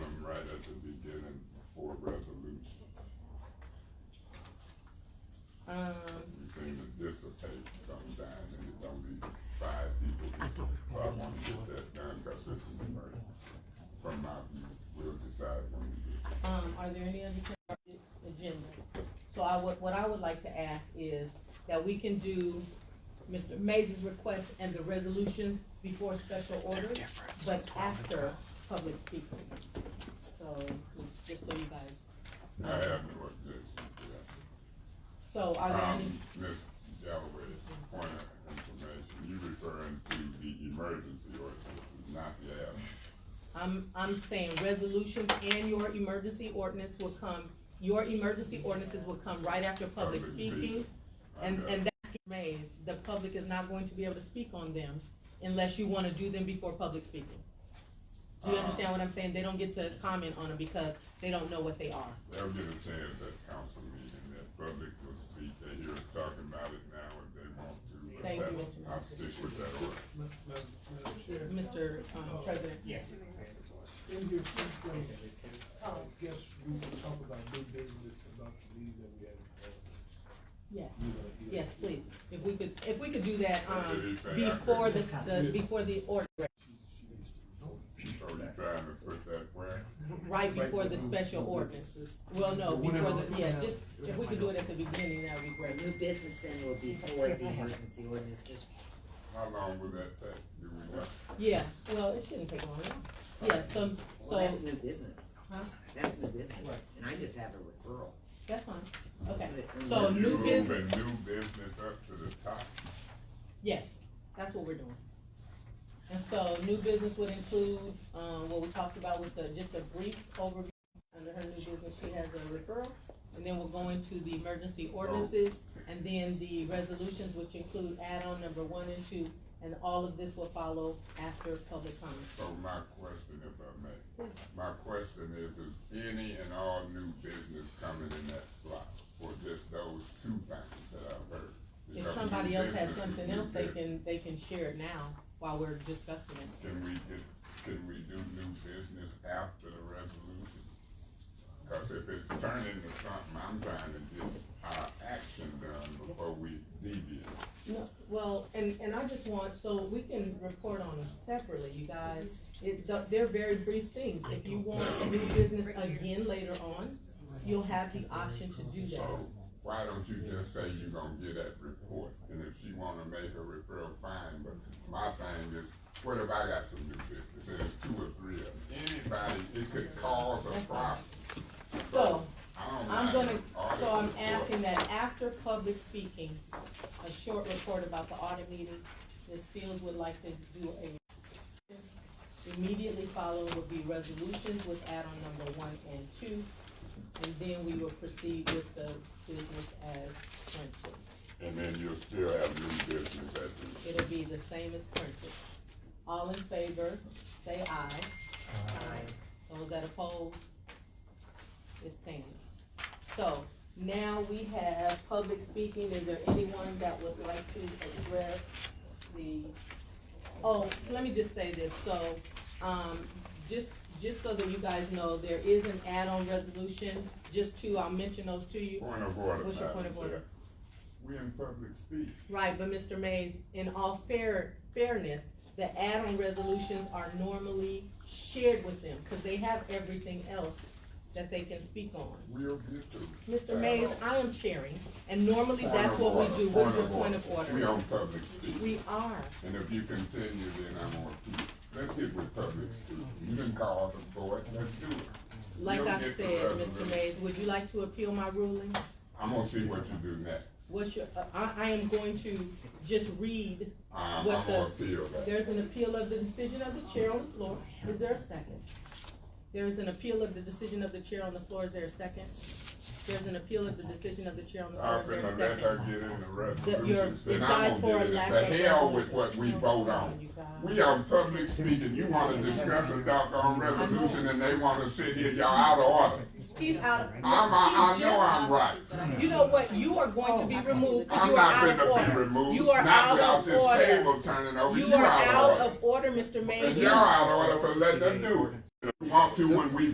Um, or um, any other consent agenda. So I would, what I would like to ask is that we can do Mr. Mays' request and the resolutions before special order, different. but after public speaking. So, just so you guys, I haven't worked this. yeah. so are there any, Um, Ms. Galloway, point of information, you referring to the emergency ordinance, not the ad. I'm, I'm saying resolutions and your emergency ordinance will come, your emergency ordinances will come right after public Public speaking. speaking. And, Okay. and that's raised, the public is not going to be able to speak on them unless you wanna do them before public speaking. Do you Uh-huh. understand what I'm saying? They don't get to comment on them because they don't know what they are. They'll get a chance at council meeting, that public will speak, they hear us talking about it now if they want to. but Thank you, that's- Mr. I'll Murphy. stick with that order. Ma- ma- Madam Chair, Mr. um, President? Yes. in your system, I guess we can talk about new business about the meeting that we had. uh, Yes, You wanna do that? yes, please. If we could, if we could do that, um, Okay, you say before after. the, the, before the order, She, she needs to know. So you trying to put that where? right before the special ordinances. Well, no, before the, yeah, just, if we could do it at the beginning, that would be Our great. new business then will be for the emergency ordinances. How long would that take? Do we know? Yeah, well, it shouldn't take long. Yeah, so, Well, so, that's new business. Huh? That's new business, and I just have a referral. that's fine. Okay, But- so You new moving business, New business up to the top? yes, that's what we're doing. And so new business would include, um, what we talked about with the, just a brief overview. Under her new business, she has a referral, and then we'll go into the emergency ordinances, Oh. and then the resolutions, which include add-on number one and two, and all of this will follow after public comment. So my question, if I may, Please. my question is, is any and all new business coming in that slot? Or just those two things that I've heard? If Because somebody new else business has is something new else, they business. can, they can share it now while we're discussing it. Can we get, can we do new business after the resolution? Cause if it's turning to something, I'm trying to get our action done before we deviate. No, well, and, and I just want, so we can report on them separately, you guys. It's, they're very brief things. If you want to do business again later on, you'll have the option to do that. So why don't you just say you gonna get that report? And if she wanna make a referral, fine, but my thing is, what if I got some new business? And it's two or three of them. Anybody, it could cause a problem. So, I don't I'm mind gonna, an audit so I'm report. asking that after public speaking, a short report about the audit meeting, Ms. Fields would like to do a. Immediately followed will be resolutions with add-on number one and two, and then we will proceed with the business as printed. And then you'll still have new business at the. It'll be the same as printed. All in favor, say aye. Aye. Those that oppose, it stands. So now we have public speaking. Is there anyone that would like to address the, oh, let me just say this. So, um, just, just so that you guys know, there is an add-on resolution, just two, I'll mention those to you. Point of order, What's your Madam point of order? Chair. We in public speech. Right, but Mr. Mays, in all fair, fairness, the add-on resolutions are normally shared with them, cause they have everything else that they can speak on. We'll get to. Mr. Mays, Add-on. I am chairing, and normally Point that's of what order, we do, what's your point of We order? on public speech. We are, And if you continue, then I'm on to you. Let's get with public speaking. You didn't call the board, let's do it. like You'll I get the said, Mr. resolution. Mays, would you like to appeal my ruling? I'm gonna see what you do next. What's your, uh, I, I am going to just read, I'm, I'm What's gonna up? appeal that. there's an appeal of the decision of the chair on the floor, is there a second? There is an appeal of the decision of the chair on the floor, is there a second? There's an appeal of the decision of the chair on the floor, I'm is gonna there a let her second? get in the That you're, resolutions, it then dies I'm for gonna a get lack in. of. The hell with resolution. what we No, vote no, on. you guys. We on public speaking, you wanna discuss a doggone resolution and they wanna sit here, y'all out of order. He's out of. I'm, I, I know I'm right. You know what, you are going to be removed, 'cause I'm you are not out of gonna be order. removed, You are not out without of this order. table turning over, You you are out of order. out of order, Mr. Mays. And y'all out of order for letting them do it. You Want to when we